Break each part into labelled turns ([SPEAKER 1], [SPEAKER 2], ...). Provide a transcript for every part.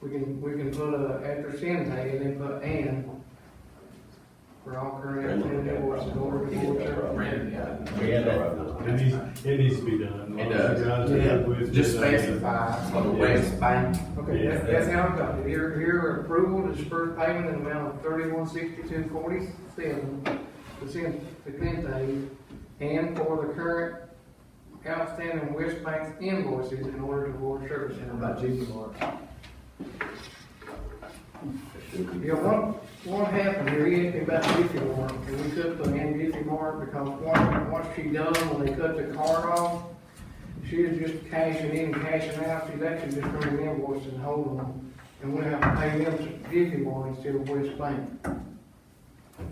[SPEAKER 1] We can, we can put a, after Shantay, and then put and. For all current and invoices or
[SPEAKER 2] Brandon,
[SPEAKER 1] before.
[SPEAKER 2] yeah.
[SPEAKER 3] We had that.
[SPEAKER 4] It needs, it needs to be done.
[SPEAKER 2] It does.
[SPEAKER 4] You guys are good with it.
[SPEAKER 2] Just specify on the West Bank,
[SPEAKER 1] Okay, that's, that's how I'm talking, here, here approval to disperse payment in the amount of thirty-one sixty-two forty-seven to send to Shantay. And for the current outstanding West Bank invoices in order to award service center by Judy March. Yeah, what, what happened here, he asked me about Jiffy Mark, and we took the hand Jiffy Mark because once, once she done, when they cut the card off, she was just cashing in and cashing out, she's actually just running invoices and holding them. And we have to pay them to Jiffy Mark instead of West Bank.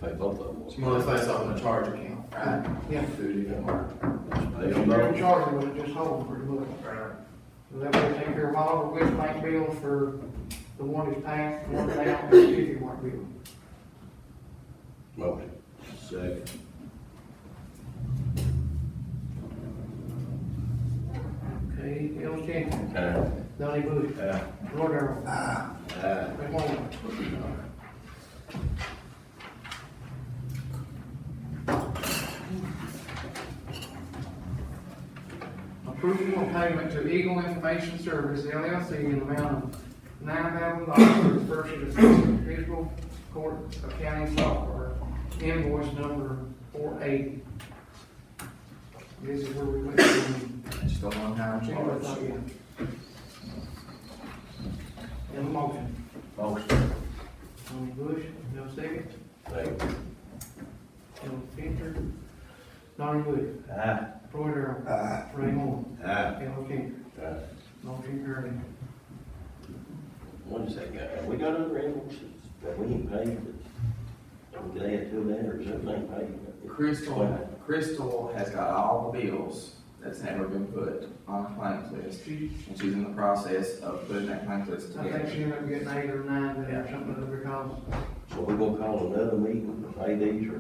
[SPEAKER 3] Pay both of them.
[SPEAKER 2] well, it's like something to charge account, right?
[SPEAKER 1] Yeah.
[SPEAKER 2] Food, you know,
[SPEAKER 3] They
[SPEAKER 1] They're
[SPEAKER 3] don't know.
[SPEAKER 1] in charge of it, just hold them for the book.
[SPEAKER 2] right?
[SPEAKER 1] So that way they take care of all the West Bank bills for the one that's passed, the one that's out, and the Jiffy Mark bill.
[SPEAKER 3] Motion. Second.
[SPEAKER 1] Okay, Ellis Cantor,
[SPEAKER 3] Aye.
[SPEAKER 1] Donnie Bush,
[SPEAKER 3] Aye.
[SPEAKER 1] Lord Darrell,
[SPEAKER 3] Aye.
[SPEAKER 1] McMorro. Approval of payment to Eagle Information Service LLC in the amount of nine thousand dollars for the purchase of fiscal court accounting software, invoice number four eighty. This is where we went from
[SPEAKER 2] Just a one time
[SPEAKER 1] January
[SPEAKER 2] charge.
[SPEAKER 1] thirtieth. And the motion.
[SPEAKER 3] Motion.
[SPEAKER 1] Tony Bush, no second.
[SPEAKER 3] Second.
[SPEAKER 1] Bill Cantor. Donnie Bush.
[SPEAKER 3] Aye.
[SPEAKER 1] Roy Darrell. Ray Moore.
[SPEAKER 2] Uh,
[SPEAKER 3] Aye.
[SPEAKER 1] Al Changer.
[SPEAKER 3] Aye.
[SPEAKER 1] Motion carried.
[SPEAKER 3] One second, have we got other invoices that we ain't paid that, that we could add to that, or is everything paid?
[SPEAKER 2] Crystal, Crystal has got all the bills that's never been put on a claims list,
[SPEAKER 1] She,
[SPEAKER 2] and she's in the process of putting that claims list
[SPEAKER 1] I think she
[SPEAKER 2] together.
[SPEAKER 1] ended up getting eight or nine there or something other because.
[SPEAKER 3] So we gonna call another meeting to pay these, or?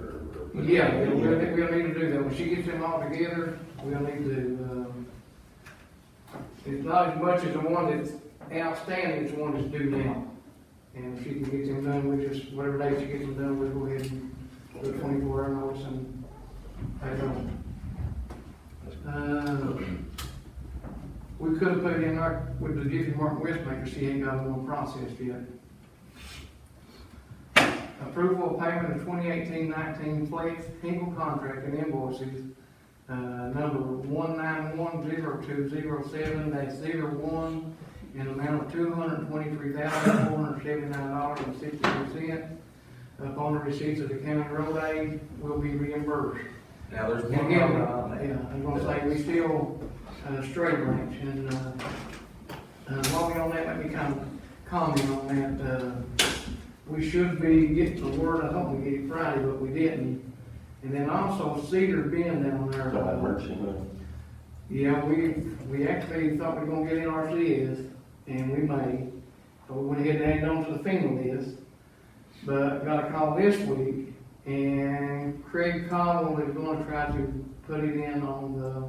[SPEAKER 3] or-
[SPEAKER 1] Yeah, we'll, we'll need to do that. When she gets them all together, we'll need to, um, it's not as much as the one that's outstanding, it's the one that's due now. And if she can get them done, we just, whatever day she gets them done, we'll go ahead and do a twenty-four hour notice and pay them. Uh, We could have put in our, with the Jiffy Martin Westmaker, she ain't got one processed yet. Approval of payment of 2018-19 flex Hinkle contract and invoices, uh, number one nine one zero two zero seven dash zero one, in amount of two hundred twenty-three thousand, four hundred seventy-nine dollars and sixty-two cents. Upon the receipt of the county road aid, will be reimbursed.
[SPEAKER 2] Now, there's
[SPEAKER 1] And
[SPEAKER 2] one
[SPEAKER 1] again,
[SPEAKER 2] other
[SPEAKER 1] uh,
[SPEAKER 2] on there.
[SPEAKER 1] yeah, I'm gonna say, we still, uh, straight ranks, and, uh, uh, while we on that, let me kind of comment on that, uh, we should be getting the word, I hope we get it Friday, but we didn't. And then also Cedar Bend down there.
[SPEAKER 3] Talking about
[SPEAKER 1] uh,
[SPEAKER 3] emergency money.
[SPEAKER 1] yeah, we, we actually thought we were gonna get NRCS, and we may, but we went ahead and added on to the FEMA list. But got a call this week, and Craig Cowell is gonna try to put it in on the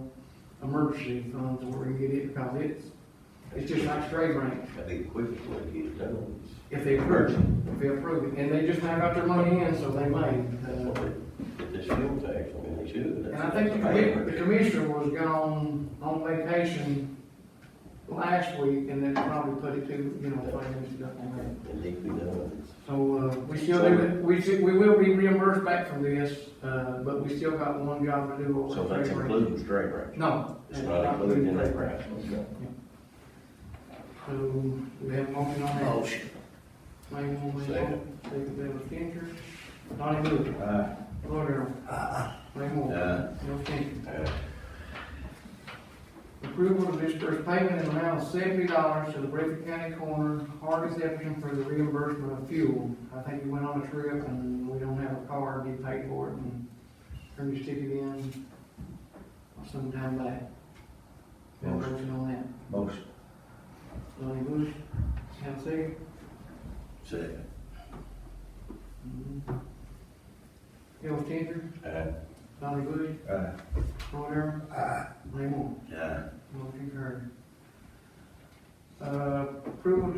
[SPEAKER 1] emergency funds, where we can get it, because it's, it's just like straight grant,
[SPEAKER 3] I think the quickest way to get it done
[SPEAKER 1] if they approve it, if they approve it, and they just now got their money in, so they
[SPEAKER 3] is,
[SPEAKER 1] may, uh,
[SPEAKER 3] get this fuel tax, I mean, they should.
[SPEAKER 1] And I think the commi- the commissioner was gone on vacation last week, and that probably put it to, you know, finance stuff on that.
[SPEAKER 3] It needs to be done.
[SPEAKER 1] So, uh, we still, do- we, still- we will be reimbursed back from this, uh, but we still got one job to do. over
[SPEAKER 3] So that's
[SPEAKER 1] February.
[SPEAKER 3] including straight range.
[SPEAKER 1] No.
[SPEAKER 3] It's not included in that price.
[SPEAKER 1] So, Um, we have a motion on that.
[SPEAKER 3] Motion.
[SPEAKER 1] Main one, main
[SPEAKER 3] Second.
[SPEAKER 1] one, second, Bill Kincher, Donnie Bush,
[SPEAKER 3] Aye.
[SPEAKER 1] Roy Darrell, Ray Moore,
[SPEAKER 3] Aye.
[SPEAKER 1] Bill Kincher.
[SPEAKER 3] Aye.
[SPEAKER 1] Approval of dispersed payment in the amount of seventy dollars to the Breathitt County Coroner, Hardy's Exception for the reimbursement of fuel. I think we went on a trip and we don't have a car, we paid for it and turned to stick it in sometime back. Got a motion on that.
[SPEAKER 3] Motion.
[SPEAKER 1] Donnie Bush, have a second?
[SPEAKER 3] Second.
[SPEAKER 1] Mm-hmm. Bill Tinter,
[SPEAKER 3] Aye.
[SPEAKER 1] Donnie Bush,
[SPEAKER 3] Aye.
[SPEAKER 1] Roy Darrell,
[SPEAKER 3] Aye.
[SPEAKER 1] Ray Moore,
[SPEAKER 3] Aye.
[SPEAKER 1] motion carried. Uh, approval to